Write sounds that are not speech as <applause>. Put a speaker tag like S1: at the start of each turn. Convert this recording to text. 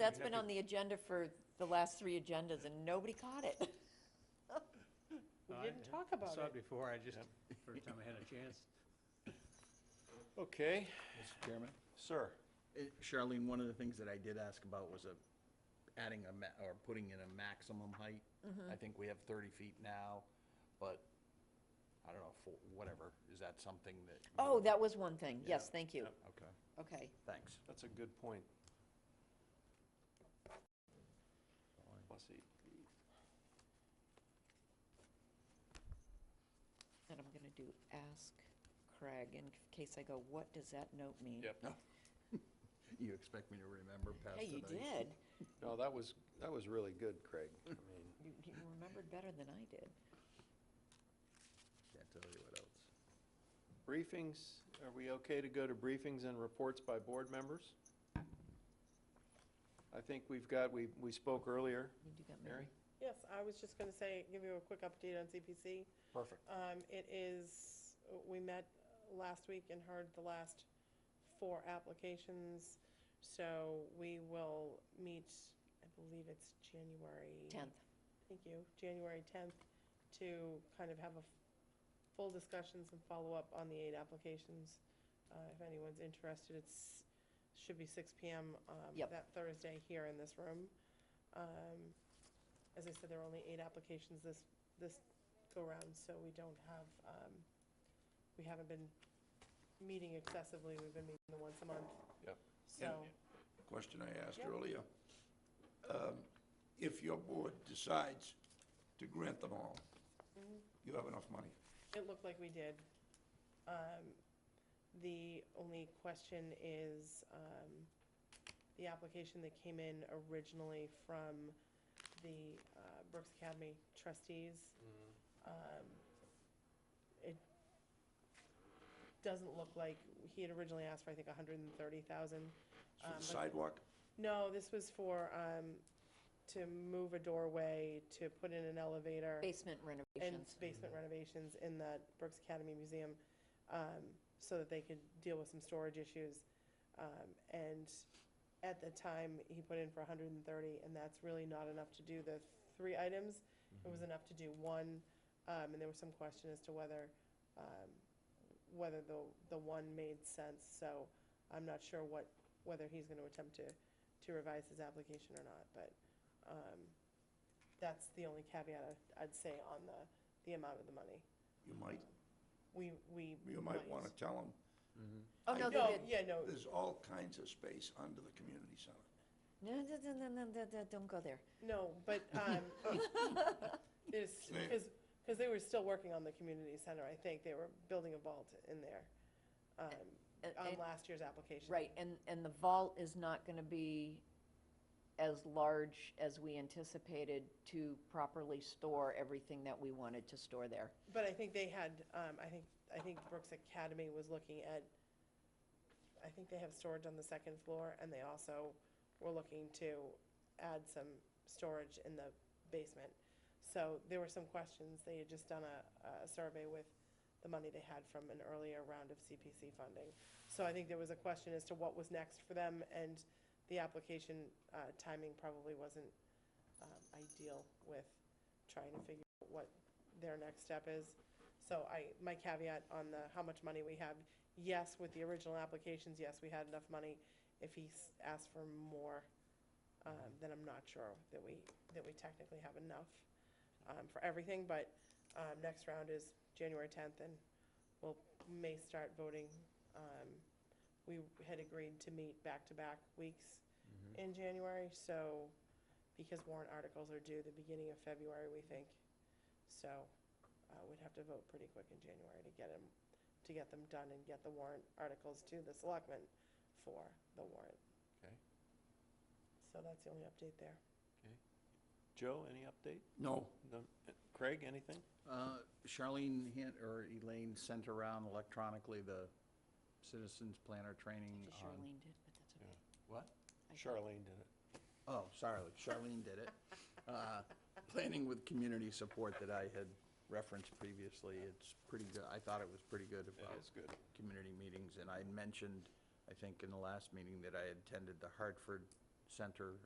S1: That's been on the agenda for the last three agendas, and nobody caught it.
S2: <laughs> We
S3: I-
S2: didn't
S3: I
S2: talk about
S3: Saw it
S2: it.
S3: before, I just, <laughs> first time I had a chance.
S4: Okay,
S5: Mr. Chairman?
S4: sir.
S5: Eh, Charlene, one of the things that I did ask about was a, adding a, ma- or putting in a maximum height.
S1: Mm-hmm.
S5: I think we have 30 feet now, but I don't know, for, whatever, is that something that? you
S1: Oh,
S5: know-
S1: that was one thing. Yes, thank you.
S5: Okay,
S1: Okay.
S5: thanks.
S4: That's a good point. Plus eight.
S1: Then I'm gonna do ask Craig, in case I go, what does that note mean?
S4: Yep.
S5: You expect me to remember past
S1: Hey, you
S5: tonight?
S1: did.
S4: No, that was, that was really good, Craig. I mean,
S1: You you remembered better than I did.
S5: Can't tell you what else.
S4: briefings, are we okay to go to briefings and reports by board members? I think we've got, we, we spoke earlier,
S1: You do got
S4: Mary?
S1: Mary.
S2: Yes, I was just going to say, give you a quick update on CPC.
S4: Perfect.
S2: Um, It is, we met last week and heard the last four applications, so we will meet, I believe it's January.
S1: Tenth.
S2: Thank you, January 10th, to kind of have a f- full discussions and follow-up on the eight applications. Uh, If anyone's interested, it's, should be 6 PM um,
S1: Yep.
S2: that Thursday here in this room. Um, As I said, there are only eight applications this, this go-round, so we don't have, um, we haven't been meeting excessively, we've been meeting the once a month.
S4: Yep.
S2: So,
S6: question I asked
S2: Yep.
S6: earlier. Um, If your board decides to grant them all, you have enough money.
S2: it looked like we did. Um, The only question is, um, the application that came in originally from the uh, Brooks Academy trustees. um, It doesn't look like, he had originally asked for, I think, a hundred and thirty thousand.
S6: It's For the sidewalk,
S2: No, this was for, um, to move a doorway, to put in an elevator.
S1: Basement
S2: And
S1: renovations.
S2: basement renovations in the Brooks Academy Museum, um, so that they could deal with some storage issues. Um, and at the time, he put in for hundred and thirty, and that's really not enough to do the three items. It was enough to do one, um, and there was some question as to whether, um, whether the, the one made sense. So I'm not sure what, whether he's gonna attempt to, to revise his application or not, but, um, that's the only caveat I- I'd say on the, the amount of the money.
S6: you might,
S2: We, we.
S6: you might want to tell them,
S1: Oh, no,
S6: I-
S1: they
S2: No,
S1: did.
S2: yeah, no,
S6: there's all kinds of space under the community center.
S1: No, no, no, no, no, no, no, don't go there.
S2: no, but, um,
S1: <laughs>
S2: there's, because, because they were still working on the community center, I think. They were building a vault in there, um,
S1: And-
S2: on
S1: and-
S2: last year's application.
S1: Right, and, and the vault is not gonna be as large as we anticipated to properly store everything that we wanted to store there.
S2: But I think they had, um, I think, I think Brooks Academy was looking at, I think they have storage on the second floor, and they also were looking to add some storage in the basement. So there were some questions, they had just done a, a survey with the money they had from an earlier round of CPC funding. So I think there was a question as to what was next for them, and the application, uh, timing probably wasn't, um, ideal with trying to figure out what their next step is. So I, my caveat on the, how much money we have, yes, with the original applications, yes, we had enough money. If he s- asks for more, um, then I'm not sure that we, that we technically have enough, um, for everything, but, um, next round is January tenth, and we'll, may start voting. Um, we had agreed to meet back-to-back weeks in January, so, because warrant articles are due the beginning of February, we think. So uh, we'd have to vote pretty quick in January to get them, to get them done and get the warrant articles to the selectmen for the warrant.
S4: Okay.
S2: So that's the only update there.
S4: Joe, any update?
S5: No,
S4: No. Craig, anything?
S5: Uh, Charlene hint, or Elaine sent around electronically the Citizens Planner Training
S1: Just
S5: on.
S1: Charlene did, but that's okay.
S5: What?
S1: I thought-
S4: Charlene did it.
S5: Oh, sorry, Charlene did it. Uh, Planning with community support that I had referenced previously, it's pretty good, I thought it was pretty good about.
S4: is good.
S5: Community meetings, and I had mentioned, I think in the last meeting, that I had attended the Hartford Center